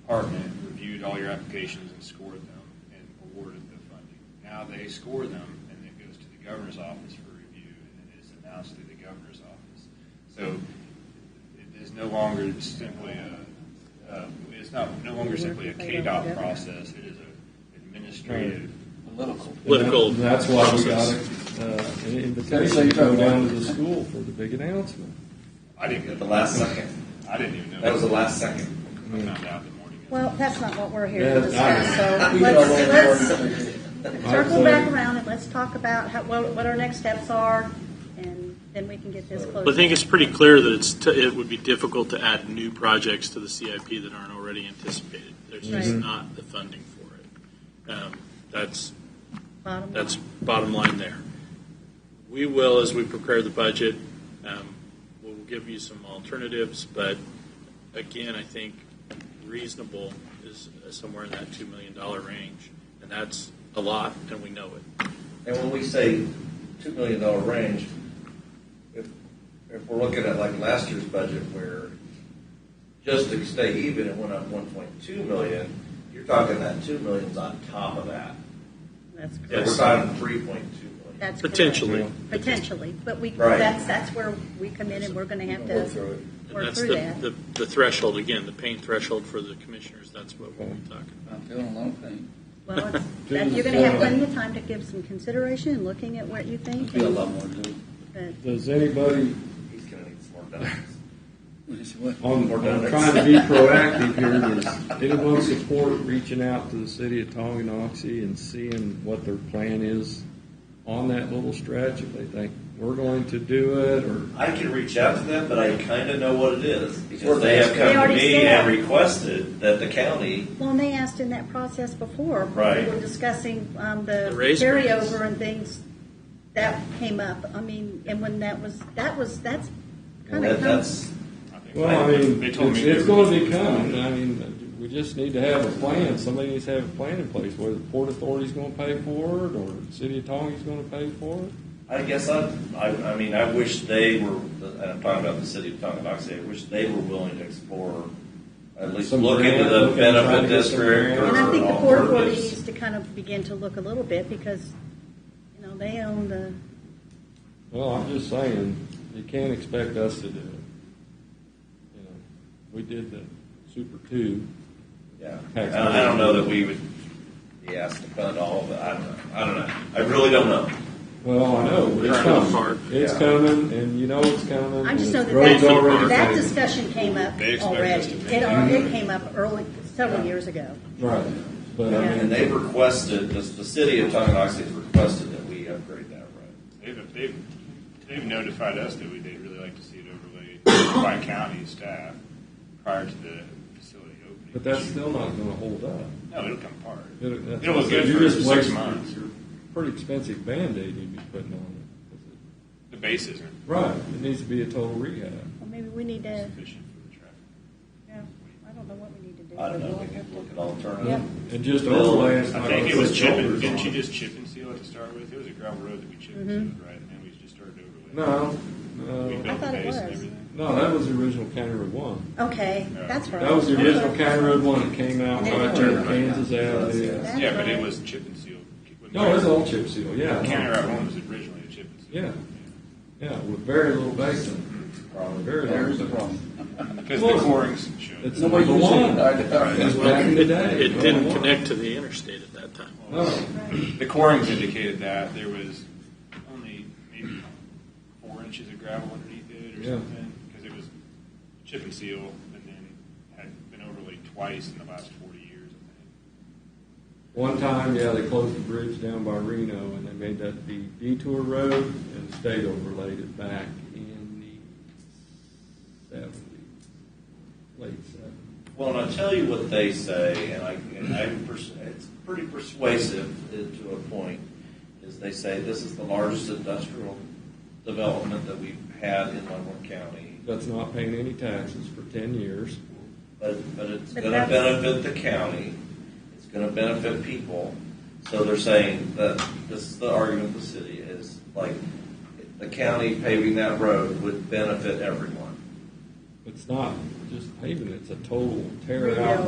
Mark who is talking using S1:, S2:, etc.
S1: department reviewed all your applications and scored them and awarded the funding. Now they score them and it goes to the governor's office for review and it is announced to the governor's office. So it is no longer simply a, uh, it's not, no longer simply a KDOT process. It is a administrative.
S2: Political.
S3: Political
S4: And that- That's why we got
S3: process.
S4: a, uh, an invitation to go down to the school for the big announcement.
S1: I didn't get
S2: At the last second.
S1: I didn't even know.
S2: That was the last second.
S1: I found out the morning. of.
S5: Well, that's not what we're here
S4: Yeah,
S5: to discuss,
S2: I
S5: so
S2: know.
S5: let's, let's circle
S4: Absolutely.
S5: back around and let's talk about how, what, what our next steps are, and then we can get this closed.
S3: But I think it's pretty clear that it's, t- it would be difficult to add new projects to the CIP that aren't already anticipated. There's just
S5: Right.
S3: not the funding for it. Um, That's,
S5: Bottom line.
S3: that's bottom line there. We will, as we prepare the budget, um, we'll give you some alternatives, but again, I think reasonable is uh, somewhere in that $2 million range, and that's a lot, and we know it.
S2: And when we say two million dollar range, if, if we're looking at like last year's budget where just to stay even, it went up one point two million, you're talking that two million's on top of that.
S5: That's
S2: So we're
S3: Yes.
S5: correct.
S2: talking three point two million.
S5: That's correct.
S3: Potentially.
S5: Potentially, but we,
S2: Right.
S5: that's, that's where we come in and we're gonna have
S2: We'll work through
S5: to
S2: it.
S3: And
S5: work
S3: that's
S5: through
S3: the,
S5: that.
S3: the, the threshold, again, the pain threshold for the commissioners, that's what we'll be talking
S6: I'm feeling a lot of pain.
S5: Well, it's- that- you're gonna have plenty of time to give some consideration and looking at what you think.
S6: There's be a lot more to do.
S5: but-
S4: Does anybody,
S2: He's gonna need some more dollars.
S6: Yes, it would.
S4: on, I'm trying to be proactive here, does anyone support reaching out to the city of Tonganoxie and seeing what their plan is on that little stretch, if they think we're going to do it, or
S2: I can reach out to them, but I kind of know what it is because
S6: Because
S2: they have
S5: They
S2: come to
S5: already
S2: me
S5: said.
S2: and requested that the county.
S5: Well, and they asked in that process before.
S2: Right.
S5: We were discussing um, the
S3: The raise grants.
S5: carryover and things that came up. I mean, and when that was, that was, that's kind
S2: That,
S5: of.
S2: that's
S1: I think
S4: Well, I mean,
S1: they
S4: it's,
S1: told me
S4: it's
S1: they were-
S4: gonna be coming, I mean, we just need to have a plan, somebody needs to have a plan in place, whether the Port Authority's gonna pay for it, or the City of Tonga's gonna pay for it.
S2: I guess I, I, I mean, I wish they were, and I'm talking about the city of Tonganoxie, I wish they were willing to explore, at least
S4: Some
S2: look into
S4: grant,
S2: the
S4: look into trying
S2: benefit
S4: to get some
S2: district
S4: grant.
S2: or
S5: And I think the Port Authority
S2: alternatives.
S5: needs to kind of begin to look a little bit because, you know, they own the,
S4: Well, I'm just saying, you can't expect us to do it. You know, we did the Super Two.
S2: Yeah, I
S4: Tax
S2: I don't know that we would be asked to fund all of it, I don't know, I don't know, I really don't know.
S4: Well, I know, it's
S3: Trying to fart.
S4: coming, it's
S2: Yeah.
S4: coming, and you know it's coming.
S5: I
S4: and
S5: just know
S4: the
S5: that
S4: road's
S5: that,
S4: already
S5: that
S4: paved.
S5: discussion came up
S1: They expect us
S5: already.
S1: to make
S5: It, al- it came up early, several years ago.
S4: Right, but I
S5: Yeah.
S2: And
S4: mean,
S2: they've requested, the, the city of Tonganoxie has requested that we upgrade that road.
S1: They've, they've, they've notified us that we, they'd really like to see it overlaid by county staff prior to the facility opening.
S4: but that's still not gonna hold up.
S1: No, it'll come apart.
S4: It- that's-
S1: It'll look good
S4: you're
S1: for
S4: just
S1: six
S4: wasting-
S1: months.
S4: you're- Pretty expensive Band-Aid you'd be putting on it.
S1: The base isn't
S4: Right, it needs to be a total rehab.
S5: Well, maybe we need to,
S1: sufficient for the traffic.
S5: yeah, I don't know what we need to do.
S2: I don't know, we could look at
S5: Yep.
S2: alternatives.
S4: And just overlay it.
S1: I think it was chip and, didn't you just chip and seal it to start with? It was a gravel road that we chip and
S5: Mm-hmm.
S1: sealed, right? And then we just started overlaying.
S4: No,
S1: We
S4: no.
S1: built the
S5: thought it
S1: base and
S5: was.
S1: everything.
S4: No, that was the original County Road One.
S5: Okay, that's right.
S4: That was the original
S5: Okay.
S4: County Road One that came out right there, Kansas Avenue.
S5: That's
S1: Yeah, but
S5: right.
S1: it was chip and sealed.
S4: No, it's all chip seal,
S1: County
S4: yeah.
S1: Route One was originally a chip and seal.
S4: Yeah. Yeah, with very little basin.
S2: Probably.
S4: Very
S6: There's the
S4: little.
S6: problem.
S1: Because the
S4: Well,
S1: corings showed.
S4: It's
S6: Nobody
S4: number
S6: uses
S4: one.
S6: it. I know.
S4: It was back in the day.
S3: It didn't
S4: Number one. Oh.
S3: connect to the interstate at that time.
S4: No,
S1: The corings indicated that there was only maybe four inches of gravel underneath it or
S4: Yeah.
S1: something, because it was chip and seal, and then had been overlaid twice in the last forty years. I
S4: one time, yeah, they closed the bridge down by Reno and they made that the detour road and the state overlaid it back in the seventies, late seventies.
S2: Well, and I tell you what they say, and I, and I pers- it's pretty persuasive uh, to a point, is they say this is the largest industrial development that we've had in Leavenworth County,
S4: that's not paying any taxes for ten years.
S2: but, but it's
S5: But
S2: going to
S5: that's-
S2: benefit the county, it's going to benefit people. So they're saying that this is the argument of the city is like the county paving that road would benefit everyone.
S4: It's not just paving, it's a total tear out,
S5: Rebuild.